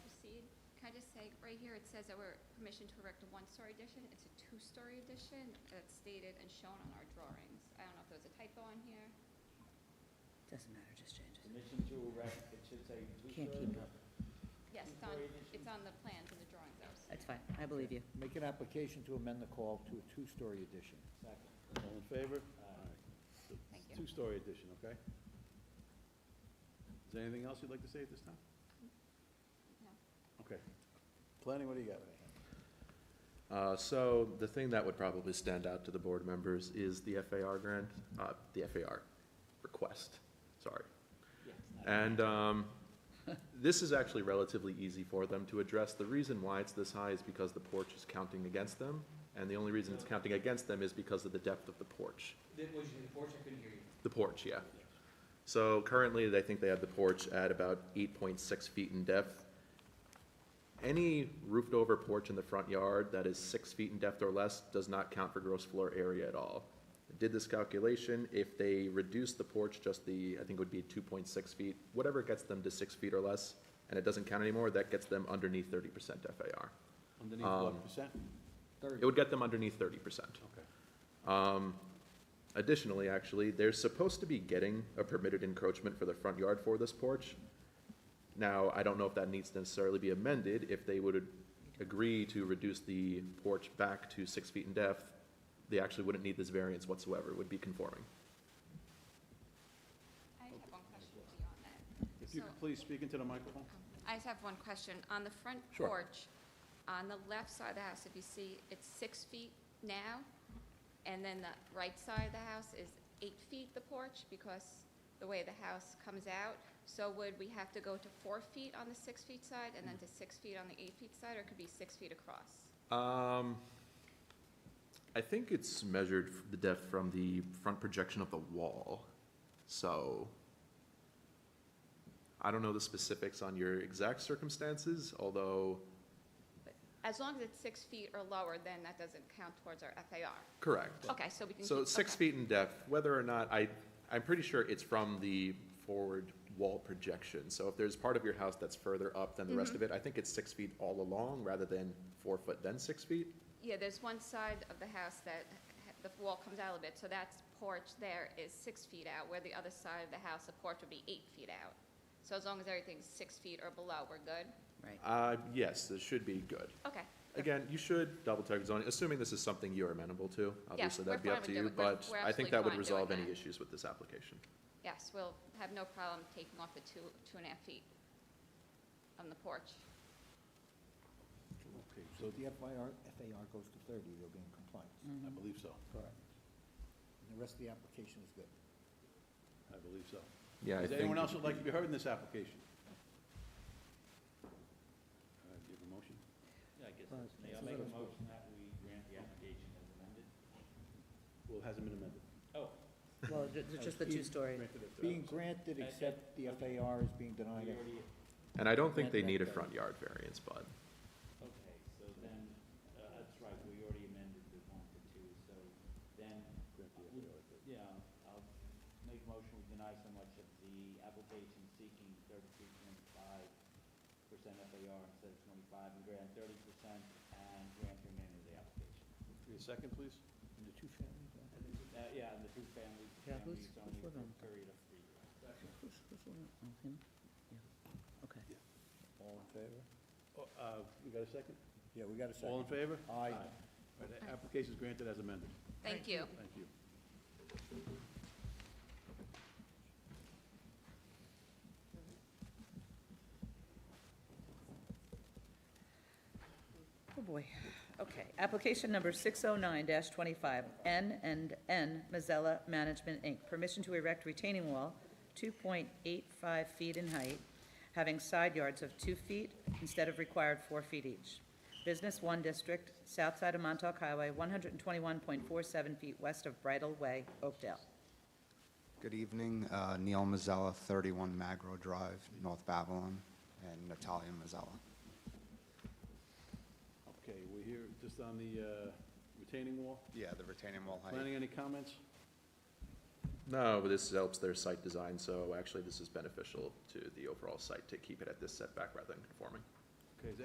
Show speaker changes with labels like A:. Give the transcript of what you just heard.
A: say, right here, it says that we're permission to erect a one-story addition. It's a two-story addition that's stated and shown on our drawings. I don't know if there was a typo on here.
B: Doesn't matter, just change it.
C: Permission to erect, it should say two-story.
B: Can't keep up.
A: Yes, it's on,
C: Two-story addition?
A: it's on the plans and the drawings, I was saying.
B: That's fine, I believe you.
D: Make an application to amend the call to a two-story addition.
C: Second.
E: All in favor?
C: Aye.
E: So,
A: Thank you.
E: Two-story addition, okay? Is there anything else you'd like to say at this time?
A: No.
E: Okay. Planning, what do you got?
F: Uh, So the thing that would probably stand out to the board members is the FAR grant, uh, the FAR request, sorry. And um, this is actually relatively easy for them to address. The reason why it's this high is because the porch is counting against them, and the only reason it's counting against them is because of the depth of the porch.
G: That was the porch, I couldn't hear you.
F: The porch, yeah. So currently, I think they have the porch at about eight point six feet in depth. Any roofed-over porch in the front yard that is six feet in depth or less does not count for gross floor area at all. I Did this calculation, if they reduce the porch just the, I think it would be two point six feet, whatever gets them to six feet or less, and it doesn't count anymore, that gets them underneath thirty percent FAR.
E: Underneath what Um, percent?
F: It would get them underneath thirty percent.
E: Okay.
F: Um, Additionally, actually, they're supposed to be getting a permitted encroachment for the front yard for this porch. Now, I don't know if that needs to necessarily be amended, if they would agree to reduce the porch back to six feet in depth, they actually wouldn't need this variance whatsoever, would be conforming.
A: I have one question beyond that.
E: If you
A: So-
E: could please speak into the microphone.
A: I just have one question. On the front
F: Sure.
A: porch, on the left side of the house, if you see, it's six feet now, and then the right side of the house is eight feet, the porch, because the way the house comes out. So would we have to go to four feet on the six-feet side and then to six feet on the eight-feet side, or it could be six feet across?
F: Um, I think it's measured f- the depth from the front projection of the wall, so I don't know the specifics on your exact circumstances, although,
A: But As long as it's six feet or lower, then that doesn't count towards our FAR.
F: correct.
A: Okay, so we can.
F: So
A: keep-
F: six
A: okay.
F: feet in depth, whether or not, I, I'm pretty sure it's from the forward wall projection. So if there's part of your house that's further up than the rest
A: Mm-hmm.
F: of it, I think it's six feet all along rather than four foot then six feet.
A: Yeah, there's one side of the house that ha- the wall comes out a bit, so that porch there is six feet out, where the other side of the house, the porch would be eight feet out. So as long as everything's six feet or below, we're good?
B: Right.
F: Uh, yes, this should be good.
A: Okay.
F: Again, you should double check zoning, assuming this is something you're amenable to. Obviously, that'd
A: we're
F: be up
A: fine with
F: to you,
A: doing- we're-
F: but
A: we're
F: I
A: absolutely
F: think that would
A: fine doing
F: resolve any
A: that.
F: issues with this application.
A: Yes, we'll have no problem taking off the two, two and a half feet on the porch.
E: Okay,
D: So
E: so,
D: if the FIR, FAR goes to thirty, they'll be in compliance.
E: I believe so.
D: Correct. And the rest of the application is good.
E: I believe so.
F: Yeah, I
E: Is there anyone
F: think-
E: else who'd like to be heard in this application? All right, do you have a motion?
C: Yeah, I guess, that's me. I'll make a motion that we grant the application as amended.
E: Well, it hasn't been amended.
C: Oh,
B: Well, ju- ju- just the two-story.
E: Granted it to
D: Being
E: us.
D: granted, except the FAR is being
C: we
D: denied.
C: already,
F: And I don't think they
D: That-
F: need a
D: that-
F: front yard variance, but
C: okay, so then, uh, that's right, we already amended the one to two, so then,
E: Grant the
C: uh,
E: FAR with it.
C: yeah, I'll make a motion, we deny so much of the application seeking thirty-three point five percent FAR instead of twenty-five, and grant thirty percent, and grant the remainder of the application.
E: Give me a second, please.
D: And the two families, uh,
C: Uh, yeah, and the two families,
B: Yeah,
C: family
B: who's-
C: is
B: who's
C: only for
B: living?
C: a period of three years.
B: Who's- who's the one? Oh, him? Yeah. Okay.
D: All in favor?
E: Oh, uh, You got a second?
D: Yeah, we got a second.
E: All in favor?
D: Aye.
E: All right, the application is granted as amended.
A: Thank you.
E: Thank you.
B: Oh, boy. Okay. Application number 609-25, N and N Mazzella Management, Inc. Permission to erect retaining wall 2.85 feet in height, having side yards of 2 feet instead of required 4 feet each. Business 1 District, south side of Montauk Highway, 121.47 feet west of Bridle Way, Oakdale.
H: Good evening, Uh, Neil Mazzella, 31 Magro Drive, North Babylon, and Natalia Mazzella.
E: Okay, we're here just on the uh, retaining wall.
H: Yeah, the retaining wall height.
E: Planning, any comments?
F: no, but this helps their site design, so actually this is beneficial to the overall site to keep it at this setback rather than conforming.